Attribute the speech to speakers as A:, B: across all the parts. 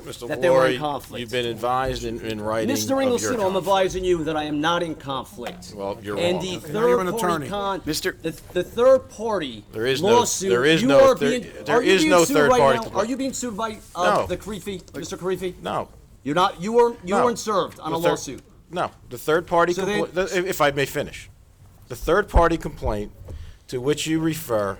A: Mr.
B: that they were
A: Laurie,
B: in conflict.
A: you've been advised in, in writing of
B: Mr.
A: your
B: Engelson, I'm
A: conflict.
B: advising you that I am not in conflict.
A: Well, you're
B: And
A: wrong.
B: the
A: Okay.
C: Now you're an
B: third party
C: attorney.
B: con,
D: Mr.
B: the, the third party
A: There is no-
B: lawsuit,
A: there is
B: you
A: no
B: are
A: thir-
B: being,
A: there
B: are you
A: is
B: being
A: no
B: sued
A: third
B: right
A: party
B: now?
A: to-
B: Are you being sued by, uh,
A: No.
B: the Creefy, Mr. Creefy?
A: No.
B: You're not, you weren't, you
A: No.
B: weren't served on
A: The
B: a
A: thir-
B: lawsuit.
A: No, the third party,
B: So they-
A: compl- the- if if I may finish, the third party complaint to which you refer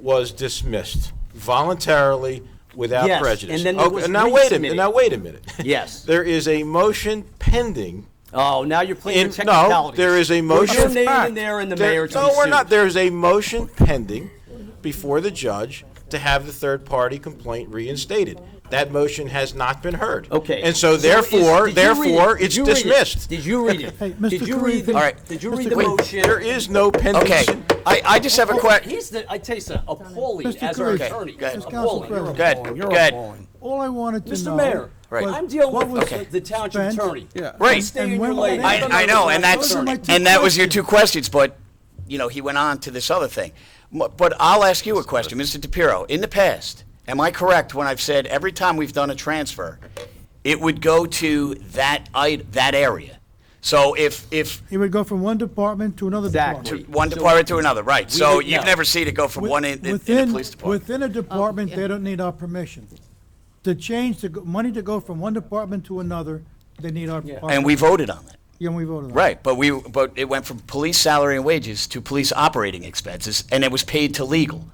A: was dismissed voluntarily without
B: Yes,
A: prejudice.
B: and then it
A: Okay,
B: was
A: Now, wait a minute,
B: resubmitted.
A: now, wait a minute.
B: Yes.
A: There is a motion pending.
B: Oh, now you're playing
A: in-
B: the
A: No,
B: technicalities.
A: there is a motion.
B: Your name in there and the
A: There-
B: mayor to
A: No,
B: be
A: we're
B: sued.
A: not. There is a motion pending before the judge to have the third-party complaint reinstated. That motion has not been heard.
B: Okay.
A: And so
B: is-
A: therefore,
B: did you read it?
A: therefore,
B: Did
A: it's
B: you read it?
A: dismissed.
B: Did you read it?
C: Mr.
B: Did you read the,
C: Creepy. All
D: right.
B: did you read the
D: Wait,
B: motion?
A: There is no pending.
D: Okay, I, I just have a question.
B: Oh, He's the, I tell you something, appalling
C: Mr.
B: as our
C: Creefy.
B: attorney,
D: Okay, go ahead.
C: Mr. Council
B: appalling.
C: President.
D: Good,
C: You're
D: good.
C: appalling. All I wanted to know.
B: Mr. Mayor,
D: Right.
B: I'm dealing
C: what
B: with
C: was
B: the- the township
C: spent-
B: attorney.
C: Yeah.
D: Right.
B: You stay in
C: And
B: your
C: when-
B: lane.
C: I-
B: I'm
D: I,
B: not
D: I know,
B: the
D: and
B: township
D: that's
C: Those are my
B: attorney.
C: two
D: and that was your
C: questions.
D: two questions, but you know he went on to this other thing. M- But I'll ask you a question, Mr. DePiro. In the past, am I correct when I've said every time we've done a transfer, it would go to that I, that area? So if if
C: It would go from one department to another
B: Exactly.
C: department.
D: one department to another, right? So
B: would
D: you've
B: know.
D: never seen it go from
C: Wi-
D: one in, in, in the
C: within-
D: police department.
C: Within a department, they don't need our permission. To change the, go- money to go from one department to another, they need our. our-
D: and we voted on it.
C: Yeah, we voted on it.
D: Right, but we, but it went from police salary and wages to police operating expenses, and it was paid to legal.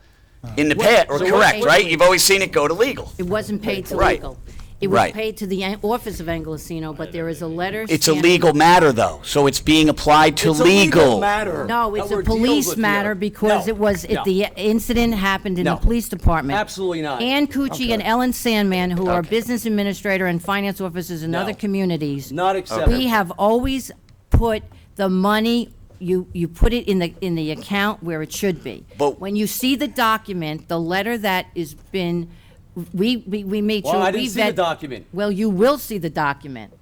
D: In the past, or
B: so Uh-huh. what-
D: correct,
E: what-
D: right? You've always seen it go to legal.
E: It wasn't paid to
D: Right.
E: legal. It was
D: Right.
E: paid to the an- office of Angelosino, but there is a letter.
D: It's a
E: standing-
D: legal matter, though, so it's being applied to
B: It's a legal
D: legal.
B: matter.
E: No,
B: that
E: it's
B: we're
E: a
B: dealing
E: police
B: with here.
E: matter because
B: No,
E: it was,
B: no.
E: it- the incident happened in
B: No.
E: the police department.
B: Absolutely not.
E: Ann Cucci and Ellen Sandman, who are
D: Okay.
E: business administrator and finance officers in
B: No.
E: other communities.
B: Not acceptable.
E: We have always put the money, you, you put it in the, in the account where it should be.
D: But-
E: When you see the document, the letter that is been, we, we, we made sure.
B: Well, I didn't
E: we
B: see the
E: vet-
B: document.
E: Well, you will see the document.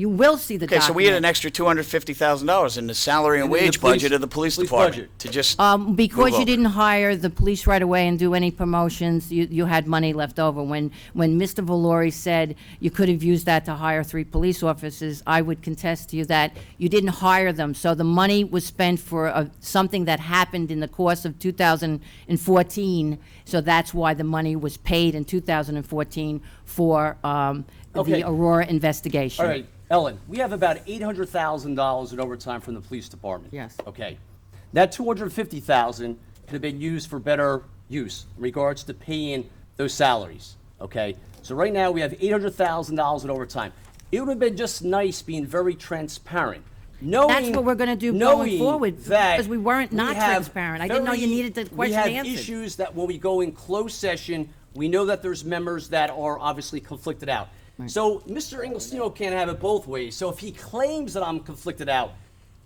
E: You will see the
D: Okay,
E: document.
D: so we had an extra two hundred fifty thousand dollars in the salary and
B: In the
D: wage
B: police-
D: budget of the police
B: police
D: department
B: budget.
D: to just.
E: Um,
D: move
E: because
D: over.
E: you didn't hire the police right away and do any promotions, you, you had money left over. When, when Mr. Valori said you could have used that to hire three police officers, I would contest to you that you didn't hire them. So the money was spent for a, something that happened in the course of 2014. So that's why the money was paid in 2014 for um,
B: Okay.
E: the Aurora investigation.
B: All right, Ellen, we have about eight hundred thousand dollars in overtime from the police department.
E: Yes.
B: Okay. That two hundred fifty thousand could have been used for better use in regards to paying those salaries, okay? So right now, we have eight hundred thousand dollars in overtime. It would have been just nice being very transparent, knowing.
E: That's what we're gonna do going
B: knowing
E: forward,
B: that
E: because we weren't not
B: have
E: transparent. I didn't know you
B: very-
E: needed the
B: We
E: question
B: have
E: answered.
B: issues that when we go in closed session, we know that there's members that are obviously conflicted out. So Mr. Inglesino can't have it both ways. So if he claims that I'm conflicted out,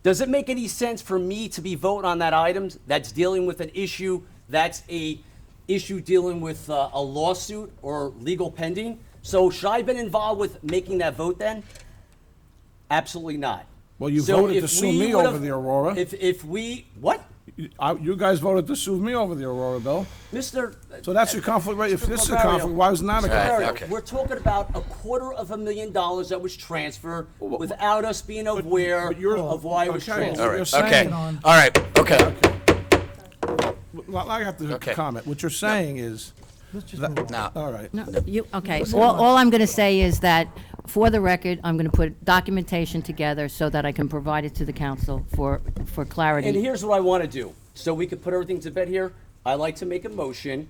B: does it make any sense for me to be voting on that item that's dealing with an issue that's a issue dealing with uh, a lawsuit or legal pending? So should I have been involved with making that vote then? Absolutely not.
F: Well, you
B: So
F: voted
B: if
F: to sue
B: we
F: me
B: would've-
F: over the Aurora.
B: If, if we, what?
F: I- You guys voted to sue me over the Aurora bill.
B: Mr.
F: So that's your conflict, right? If
B: Mr.
F: this is a
B: Barbario.
F: conflict, why was not a
B: Mr.
F: conflict?
B: Barbario,
D: okay.
B: We're talking about a quarter of a million dollars that was transferred without us being aware
F: but you're-
B: of why it was
F: okay,
B: transferred.
D: All
F: you're
D: right,
F: saying
D: okay,
F: it
D: all
F: on-
D: right, okay.
F: Well, I have to
D: Okay.
F: comment. What you're saying is,
C: Let's just
F: that-
C: move on.
D: Now,
F: all right.
E: No, you, okay, all, all I'm gonna say is that, for the record, I'm gonna put documentation together so that I can provide it to the council for, for
B: And
E: clarity.
B: here's what I want to do, so we could put everything to bed here. I like to make a motion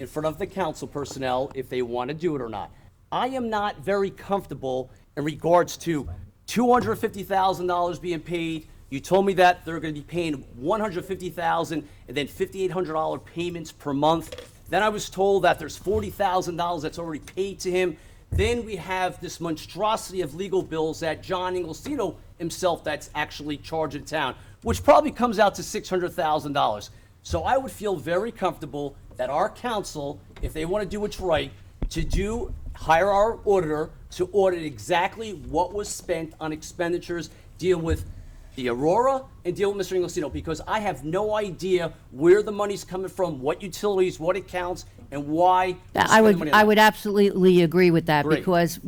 B: in front of the council personnel if they want to do it or not. I am not very comfortable in regards to two hundred fifty thousand dollars being paid. You told me that they're going to be paying one hundred fifty thousand and then fifty-eight hundred dollar payments per month. Then I was told that there's forty thousand dollars that's already paid to him. Then we have this monstrosity of legal bills that John Inglesino himself that's actually charged in town, which probably comes out to six hundred thousand dollars. So I would feel very comfortable that our council, if they want to do what's right, to do hire our auditor to audit exactly what was spent on expenditures, deal with the Aurora and deal with Mr. Inglesino because I have no idea where the money's coming from, what utilities, what accounts, and why. we
E: I
B: spend the
E: would,
B: money on
E: I
B: that.
E: would absolutely agree with that
B: Great.
E: because